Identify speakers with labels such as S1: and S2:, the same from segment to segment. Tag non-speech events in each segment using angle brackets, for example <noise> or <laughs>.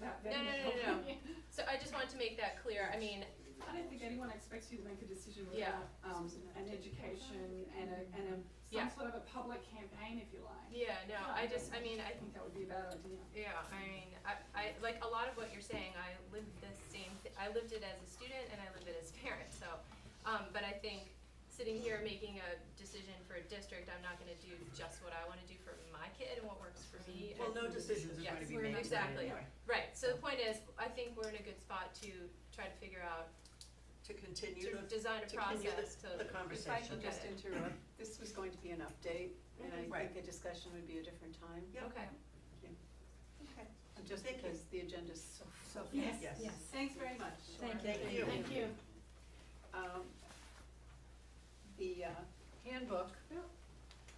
S1: not
S2: No,
S1: vetting the
S2: no, no, no, no.
S1: company.
S2: So I just wanted to make that clear. I mean,
S1: I don't think anyone expects you to make a decision
S2: Yeah.
S1: without, um, an education and a, and a,
S2: Yeah.
S1: some sort of a public campaign, if you like.
S2: yeah, no, I just, I mean, I
S1: I think that would be a bad idea.
S2: Yeah, I mean, I, I, like a lot of what you're saying, I lived the same, thi- I lived it as a student and I lived it as a parent, so. Um, but I think sitting here making a decision for a district, I'm not gonna do just what I wanna do for my kid and what works for me.
S3: Well,
S2: and-
S3: no decisions are going to
S2: Yes,
S3: be
S2: we're
S3: made
S2: not-
S3: today
S2: exactly.
S3: anyway.
S2: Right, so the point is, I think we're in a good spot to try to figure out,
S3: To
S2: to
S3: continue the,
S2: design a
S3: to continue
S2: process to.
S3: the
S4: If I
S3: conversation.
S4: could just interrupt, this was going to be an update, and I
S3: Right.
S4: think a discussion would be a different time.
S3: Yeah.
S2: Okay,
S3: Okay.
S4: Just
S3: Thank you.
S4: because the agenda's so, so fast.
S1: Yes.
S3: Yes.
S4: Thanks very much.
S5: Thank
S3: Thank you.
S4: Thank you. Um, the uh, handbook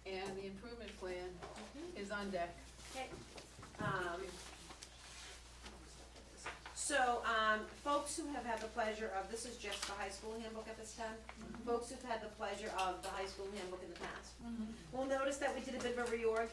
S4: and the improvement plan is on deck.
S6: Um, so, um, folks who have had the pleasure of, this is just the high school handbook at this time, folks who've had the pleasure of the high school handbook in the past,
S2: Mm-hmm.
S6: will notice that we did a bit of a reorg,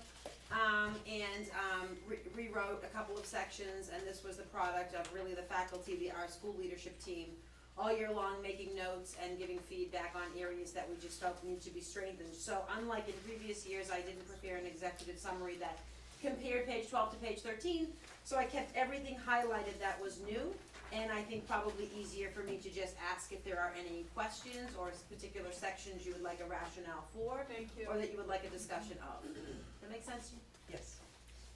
S6: um, and, um, re- rewrote a couple of sections, and this was the product of really the faculty, the, our school leadership team, all year long making notes and giving feedback on areas that we just felt need to be strengthened. So unlike in previous years, I didn't prepare an executive summary that compared page twelve to page thirteen, so I kept everything highlighted that was new, and I think probably easier for me to just ask if there are any questions or s- particular sections you would like a rationale for,
S4: Thank
S6: or that you would like a discussion of. That make sense?
S3: Yes.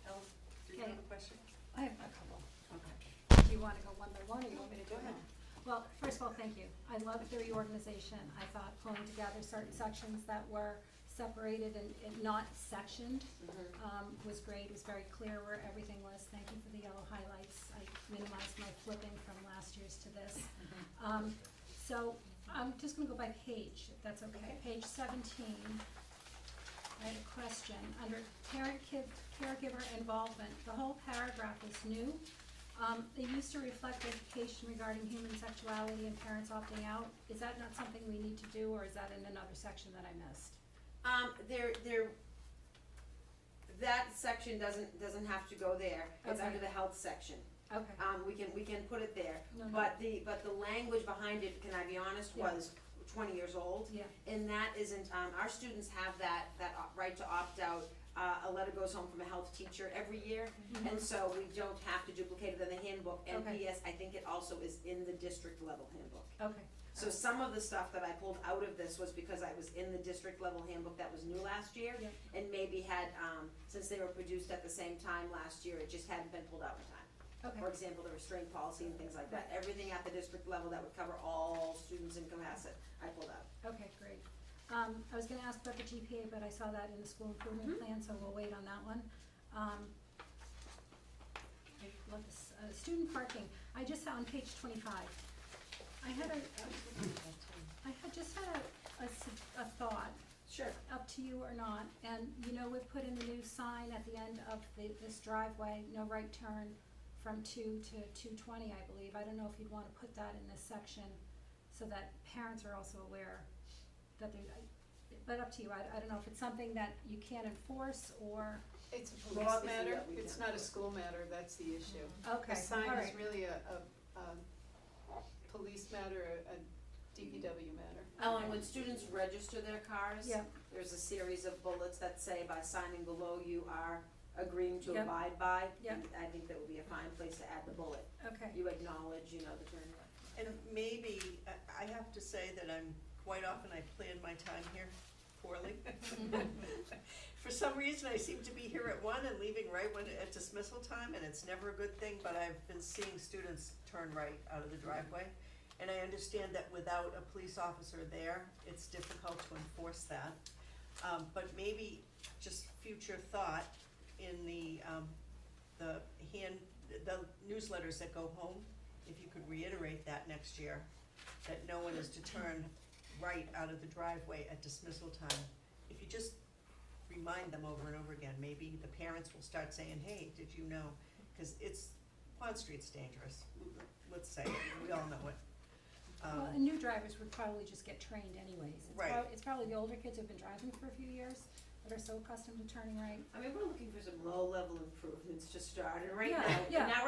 S3: Helen, do you have a question?
S5: I have a couple.
S3: Okay.
S5: Do you wanna go one by one, or you want me to do it all? Well, first of all, thank you. I loved the reorganization. I thought pulling together certain sections that were separated and, and not sectioned,
S3: Mm-hmm.
S5: um, was great. It was very clear where everything was. Thank you for the yellow highlights. I minimized my flipping from last year's to this.
S3: Mm-hmm.
S5: Um, so I'm just gonna go by page, if that's okay. Page seventeen, I had a question. Under parent kid, caregiver involvement, the whole paragraph is new. Um, they used to reflect education regarding human sexuality and parents opting out. Is that not something we need to do, or is that in another section that I missed?
S6: Um, there, there, that section doesn't, doesn't have to go there, it's
S5: Okay.
S6: under the health section,
S5: Okay,
S6: um, we can, we can put it there.
S5: no, no,
S6: But the, but the language behind it, can I be honest,
S5: Yeah.
S6: was twenty years old.
S5: yeah,
S6: And that isn't, um, our students have that, that op- right to opt out, uh, a letter goes home from a health teacher every year.
S5: Mm-hmm.
S6: And so we don't have to duplicate it in the handbook, and
S5: Okay.
S6: PS, I think it also is in the district level handbook.
S5: okay,
S6: So some of the stuff that I pulled out of this was because I was in the district level handbook that was new last year.
S5: Yeah.
S6: And maybe had, um, since they were produced at the same time last year, it just hadn't been pulled out in time
S5: okay,
S6: for example, the restraint policy and things like that, everything at the district level that would cover all students in Cohasset, I pulled out.
S5: okay, great. Um, I was gonna ask about the GPA, but I saw that in the school improvement plan, so we'll wait on that one. Um, I love this, uh, student parking, I just saw on page twenty-five. I had a, I had just had a, a s- a thought,
S6: Sure.
S5: up to you or not, and you know, we've put in the new sign at the end of the, this driveway, no right turn from two to two twenty, I believe, I don't know if you'd wanna put that in this section, so that parents are also aware that there's, I- but up to you, I, I don't know if it's something that you can't enforce, or,
S4: It's a
S6: Police
S4: law
S6: is
S4: matter,
S6: what we
S4: it's
S6: do.
S4: not a school matter, that's the issue.
S5: okay,
S4: The sign is
S5: alright,
S4: really a, a, um, police matter, a DPW matter.
S6: Oh, and when students register their cars,
S5: yeah,
S6: there's a series of bullets that say by signing below, you are agreeing to
S5: Yep.
S6: abide by.
S5: Yep.
S6: And I think that would be a fine place to add the bullet,
S5: okay,
S6: you acknowledge, you know, the turn.
S3: And maybe, I- I have to say that I'm, quite often I plan my time here poorly. <laughs> For some reason, I seem to be here at one and leaving right when, at dismissal time, and it's never a good thing, but I've been seeing students turn right out of the driveway. And I understand that without a police officer there, it's difficult to enforce that. Um, but maybe just future thought in the, um, the hand, the newsletters that go home, if you could reiterate that next year, that no one is to turn right out of the driveway at dismissal time. If you just remind them over and over again, maybe the parents will start saying, hey, did you know? Cause it's, Pond Street's dangerous, let's say, it. we all know it.
S5: well,
S3: Um,
S5: and new drivers would probably just get trained anyways, it's
S3: Right.
S5: prob- it's probably the older kids who've been driving for a few years, that are so accustomed to turning right,
S6: I mean, we're looking for some low-level improvements to start, and right
S5: Yeah,
S6: now,
S5: yeah.
S6: now